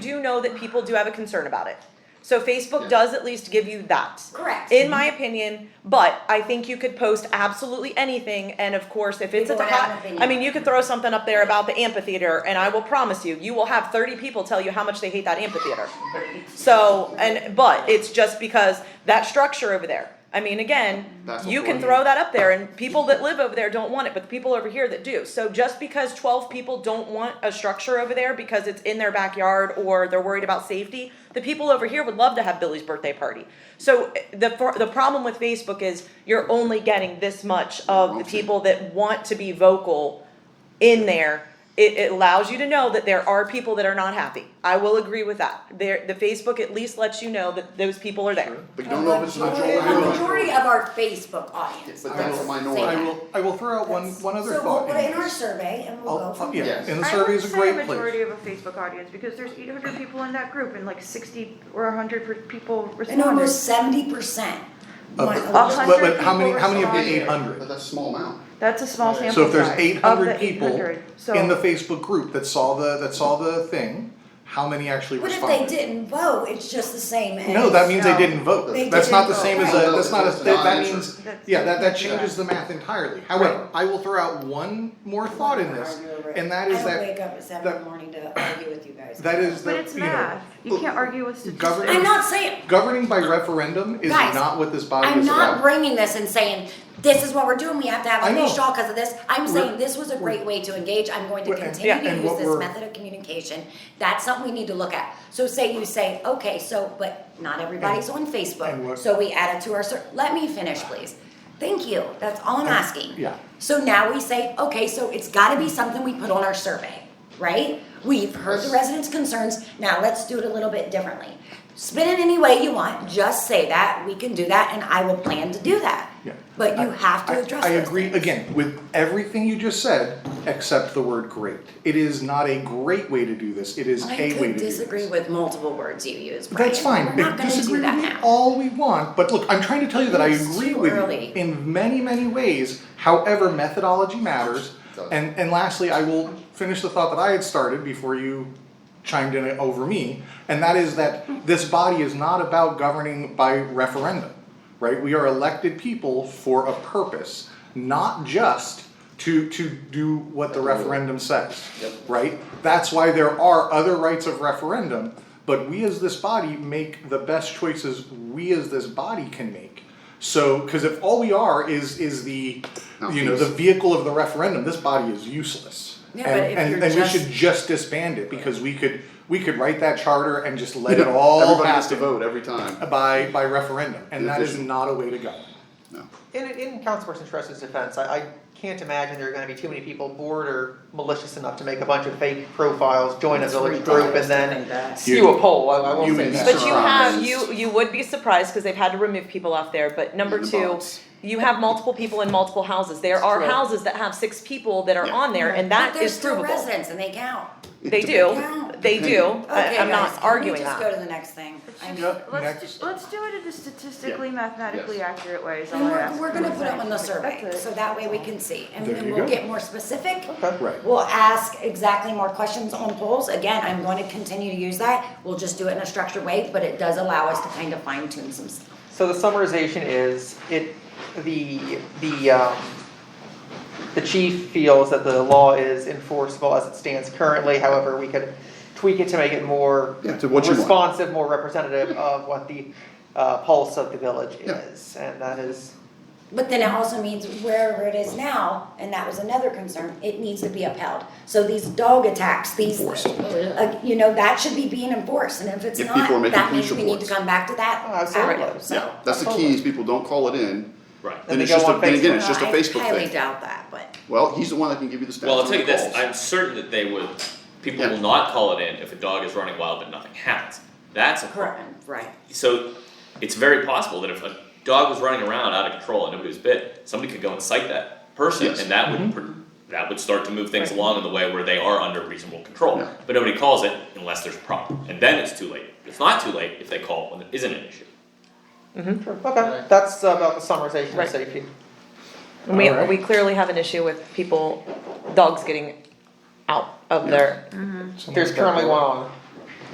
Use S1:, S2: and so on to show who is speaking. S1: do know that people do have a concern about it. So Facebook does at least give you that.
S2: Correct.
S1: In my opinion, but I think you could post absolutely anything, and of course, if it's a
S2: People would have an
S1: hot,
S2: opinion.
S1: I mean, you could throw something up there about the amphitheater, and I will promise you, you will have thirty people tell you how much they hate that amphitheater. So, and, but it's just because that structure over there, I mean, again,
S3: That's
S1: you
S3: what
S1: can
S3: we're-
S1: throw that up there, and people that live over there don't want it, but the people over here that do. So just because twelve people don't want a structure over there because it's in their backyard or they're worried about safety, the people over here would love to have Billy's birthday party. So eh, the, pro- the problem with Facebook is you're only getting this much of the people that want to be vocal in there, it, it allows you to know that there are people that are not happy. I will agree with that. There, the Facebook at least lets you know that those people are there.
S3: But you don't know if it's a majority
S2: A
S3: or
S2: majority
S3: not.
S2: of our Facebook audience.
S3: But that's a
S2: Say
S3: minority.
S4: I
S2: that.
S4: will, I will throw out one, one other
S2: So we'll
S4: thought.
S2: put it in our survey and we'll go
S4: I'll-
S2: from
S4: I'll-
S2: there.
S4: Yeah, and the
S5: I
S4: survey
S5: would
S4: is a
S5: say
S4: great
S5: majority
S4: place.
S5: of a Facebook audience, because there's eight hundred people in that group, and like sixty or hundred per- people
S2: And
S5: responded.
S2: almost seventy percent
S4: Of
S2: want
S4: the-
S2: a
S5: hundred
S4: But, but how many,
S5: people
S4: how many of the
S5: responded.
S4: eight hundred?
S3: But that's a small amount.
S5: That's a small sample size.
S4: So if there's eight hundred
S5: of the
S4: people
S5: 800, so-
S4: in the Facebook group that saw the, that saw the thing, how many actually
S2: But if
S4: responded?
S2: they didn't vote, it's just the same as.
S4: No, that means they
S5: No.
S4: didn't vote.
S2: They
S4: That's not the
S2: didn't
S4: same
S2: vote.
S4: as a,
S3: Right.
S4: that's not a,
S3: It's
S4: that,
S3: not
S4: that
S3: an
S4: means,
S5: answer.
S4: yeah, that, that
S5: That's-
S4: changes the math entirely. However, I will throw out one more thought in this, and that is
S2: I don't
S4: that,
S2: wake up at seven in the
S4: that-
S2: morning to argue with you guys.
S4: that is
S5: But
S4: the,
S5: it's
S4: you know,
S5: math, you can't argue with statistics.
S4: government-
S2: I'm not saying,
S4: Governing by referendum is
S2: Guys,
S4: not what this body
S2: I'm
S4: is
S2: not
S4: about.
S2: bringing this and saying, this is what we're doing, we have to have
S4: I
S2: a
S4: know.
S2: finished all because of this. I'm
S4: We're-
S2: saying this was a great way to engage, I'm going to
S4: We're- and-
S2: continue
S4: yeah,
S2: to
S4: and
S2: use
S4: what
S2: this
S4: we're-
S2: method of communication. That's something we need to look at. So say you say, okay, so, but not everybody's on
S4: and
S2: Facebook,
S4: what-
S2: so we add it to our, ser- let me finish, please. Thank you, that's all I'm asking.
S4: yeah.
S2: So now we say, okay, so it's gotta be something we put on our survey, right? We've heard the residents' concerns, now let's do it a little bit differently. Spin it any way you want, just say that, we can do that, and I will plan to do that.
S4: Yeah.
S2: But you
S4: I-
S2: have
S4: I-
S2: to address
S4: I
S2: those
S4: agree,
S2: things.
S4: again, with everything you just said, except the word great. It is not a great way to do this, it is a
S2: I
S4: way to do this.
S2: could disagree with multiple words you use, Brian.
S4: That's fine,
S2: We're not
S4: but
S2: gonna
S4: disagree
S2: do that
S4: with me
S2: now.
S4: all we want, but look, I'm trying to tell you that I
S2: It's
S4: agree
S2: too
S4: with you
S2: early.
S4: in many, many ways, however, methodology matters.
S3: Does.
S4: And, and lastly, I will finish the thought that I had started before you chimed in over me, and that is that this body is not about governing by referendum, right? We are elected people for a purpose, not just to, to do what the referendum says,
S3: Yep.
S4: right? That's why there are other rights of referendum, but we as this body make the best choices we as this body can make. So, cause if all we are is, is the, you know, the vehicle of the referendum, this body is useless.
S2: Yeah, but
S4: And-
S2: if
S4: and-
S2: you're
S4: And we
S2: just-
S4: should just disband it because we could, we could write that charter and just let it all
S3: Everybody has to
S4: happen
S3: vote every time.
S4: By, by referendum, and that is
S3: Efficient.
S4: not a way to go.
S3: No.
S6: In, in Councilperson Tress's defense, I, I can't imagine there are gonna be too many people bored or malicious enough to make a bunch of fake profiles, join a village group, and then skew a poll, I, I won't
S3: You
S6: say
S3: would
S6: that.
S3: be
S1: But you have, you, you would be surprised, cause they've had to remove people off there, but number
S3: And the
S1: two,
S3: box.
S1: you have multiple people in multiple houses, there are
S6: True.
S1: houses that have six people that are
S3: Yeah.
S1: on there, and
S2: But
S1: that
S2: they're
S1: is
S2: still
S1: provable.
S2: residents and they count.
S1: They do,
S2: Yeah.
S1: they do, I,
S2: Okay,
S1: I'm
S2: guys,
S1: not
S2: can we
S1: arguing
S2: just
S1: that.
S2: go to the next thing? I mean,
S4: Yep,
S5: Let's,
S4: next.
S5: do- let's do it in a statistically,
S3: Yeah.
S5: mathematically
S3: Yes.
S5: accurate way, is all
S2: And
S5: I
S2: we're,
S5: ask.
S2: we're gonna put it on the survey,
S5: That's it.
S2: so that way we can see, and
S4: There
S2: then
S4: you
S2: we'll
S4: go.
S2: get more specific.
S6: Okay.
S4: Right.
S2: We'll ask exactly more questions on polls, again, I'm going to continue to use that, we'll just do it in a structured way, but it does allow us to kind of fine tune some stuff.
S6: So the summarization is, it, the, the, um, the chief feels that the law is enforceable as it stands currently, however, we could tweak it to make it more
S3: Yeah, to what you want.
S6: responsive, more representative of what the, uh, pulse of the village
S3: Yeah.
S6: is, and that is,
S2: But then it also means wherever it is now, and that was another concern, it needs to be upheld. So these dog attacks, these, uh, you know, that should be being enforced, and if it's
S3: If people are
S2: not,
S3: making
S2: that
S3: police
S2: means we need to
S3: reports.
S2: come back to that
S6: Oh, absolutely.
S2: avenue, so.
S3: Yeah, that's the key is people don't call it in.
S7: Right.
S3: Then
S6: they
S3: it's
S6: go
S3: just, a-
S6: on
S3: then again, it's
S2: No,
S3: just a
S2: I
S3: Facebook
S2: highly
S3: thing.
S2: doubt that, but.
S3: Well, he's the one that can give you the stats.
S7: Well, I'll
S3: on
S7: tell you
S3: the
S7: this:
S3: calls.
S7: I'm certain that they would. People
S3: Yeah.
S7: will not call it in if a dog is running wild but nothing happens. That's a problem.
S2: Right.
S7: So it's very possible that if a dog was running around out of control and nobody was bit, somebody could go and cite that person,
S3: Yes. Mm-hmm.
S7: and that would pr- that would start to move things along in the way where they are under reasonable control.
S3: Yeah.
S7: But nobody calls it unless there's a problem, and then it's too late. It's not too late if they call when there isn't an issue.
S6: okay, that's about the summarization of
S1: Right.
S6: safety.
S1: And We,
S4: Alright.
S1: we clearly have an issue with people, dogs getting out of their,
S6: There's currently one on